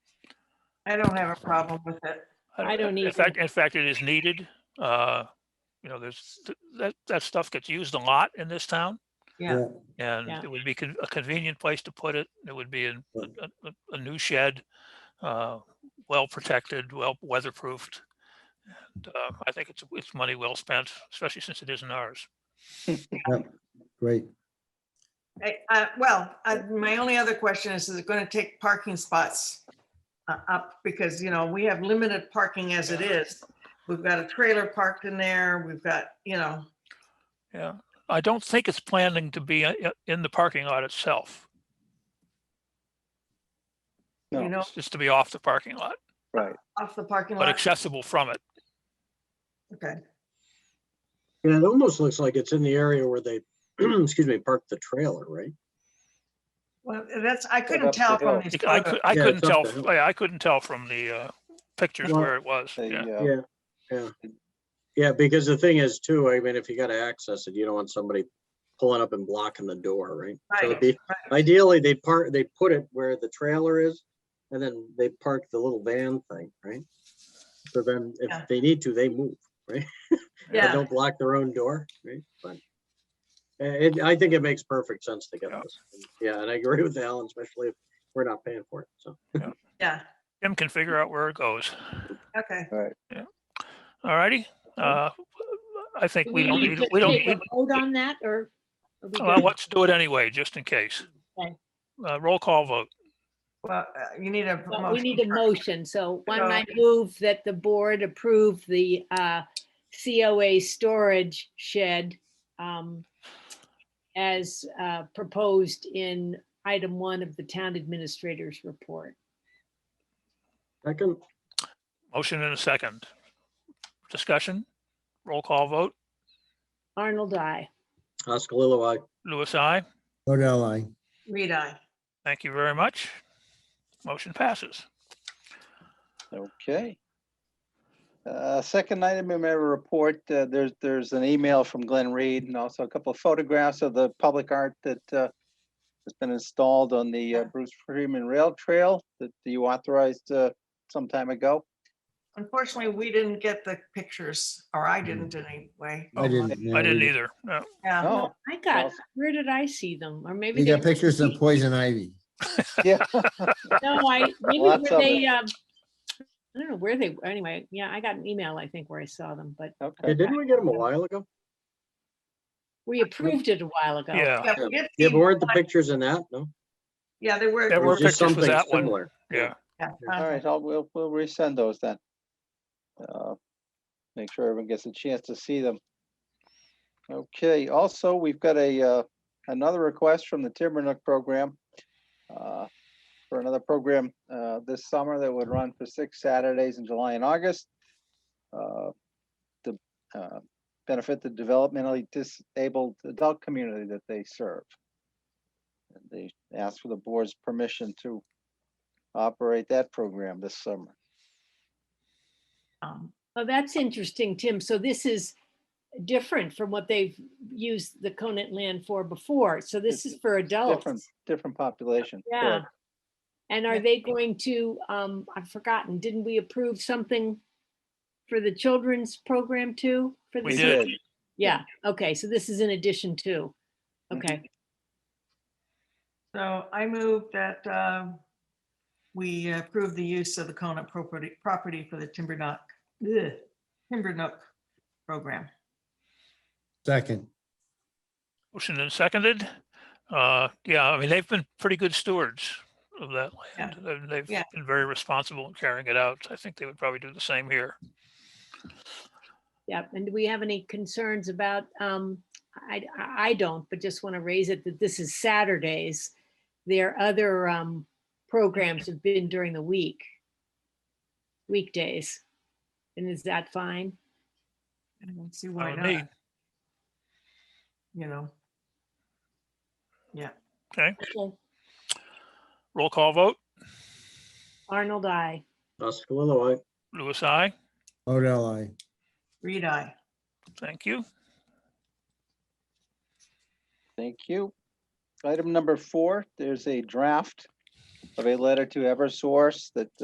I don't have a problem with it. I don't In either. fact, in fact, it is needed. Uh, you know, there's, th- that, that stuff gets used a lot in this town. Yeah. And Yeah. it would be con- a convenient place to put it. It would be in Yeah. a, a- a new shed, uh, well protected, well weatherproofed. And, uh, I think it's, it's money well spent, especially since it isn't ours. Great. I- uh, Well, uh, my only other question is, is it going to take parking spots uh, up? Because, you know, we have limited parking as it is. We've got a trailer parked in there. We've got, you know, Yeah. I don't think it's planning to be uh, i- in the parking lot itself. you No. know, It's just to be off the parking lot, Right. off the parking but lot. accessible from it. Okay. And it almost looks like it's in the area where they, excuse me, parked the trailer, right? Well, that's, I couldn't up the tell hill. from these It- I, cou- photos. I Yeah, couldn't it's up tell, the f- hill. yeah, I couldn't tell from the, uh, pictures Well, where it was. The, Yeah. uh, Yeah, yeah. Yeah, because the thing is too, I mean, if you gotta access it, you don't want somebody pulling up and blocking the door, right? So it'd Right, be- right. Ideally, they park, they put it where the trailer is and then they park the little van thing, right? So then Yeah. if they need to, they move, but Yeah, don't block their own door, right? But uh, it, I think it makes perfect sense to get Yeah. this. Yeah, and I agree with Alan, especially if we're not paying for it, so. yeah, Tim can figure out where it goes. okay. All righty. Uh, I think Do we don't need need, to we don't, take a need- Oh, Vote on that or? are we well, good? let's do it anyway, just in case. Okay. Uh, roll call vote. Well, uh, you need a. Well, We need a first. motion, so why don't I So- move that the board approve the uh, COA storage shed um, as uh, proposed in item one of the town administrator's report. Second, Motion in a second. Discussion, roll call vote. Arnold, I. Oscalillo, I. Louis, I. Odell, I. Reed, aye. Thank you very much. Motion passes. Okay. Uh, Second item in my report, uh, there's, there's an email from Glenn Reed and also a couple of photographs of the public art that uh, has been installed on the uh, Yeah. Bruce Freeman Rail Trail that you authorized uh, some time ago. Unfortunately, we didn't get the pictures, or I didn't anyway. I didn't. Oh, I didn't either. either. No. Yeah, Oh, I got, Well- where did I see them? Or maybe. You got they- pictures of poison ivy. yeah, No, I, maybe were Lots of they, um, I don't know where they, anyway, yeah, I got an email, I think, where I saw them, but Hey, okay. Didn't we get him a while ago? we approved it a while ago. Yeah, Yeah, we did Yeah, see- but weren't the pictures in that? No? Yeah, there were. There Or were just pictures with something that one. similar? yeah. yeah, uh, All right, I'll, we'll, we'll resend those then. Uh, Make sure everyone gets a chance to see them. Okay, also, we've got a, uh, another request from the Timbernook program. uh, For another program, uh, this summer that would run for six Saturdays in July and August. uh, To, uh, benefit the developmentally disabled adult community that they serve. And They ask for the board's permission to operate that program this summer. um, Oh, that's interesting, Tim. So this is different from what they've used the Conant land for before. So this is for Different, adults. different population. Yeah. correct. And are they going to, um, I've forgotten, didn't we approve something for the children's program too? for We the did. summer? Yeah, okay, so this is in addition to, okay. So I move that um, we approve the use of the Conant property, property for the Timbernook, ugh, Timbernook program. Second, Motion and seconded. Uh, yeah, I mean, they've been pretty good stewards of that land. and They've Yeah. been very responsible in carrying it out. I think they would probably do the same here. Yep, and do we have any concerns about, um, I, I I don't, but just want to raise it that this is Saturdays. Their other, um, programs have been during the week. Weekdays. And is that fine? I don't see I why would need- not, you know. Okay, Okay. roll call vote. Arnold, I. Oscalillo, I. Louis, I. Odell, I. Reed, I. Thank you. Thank you. Item number four, there's a draft of a letter to Eversource that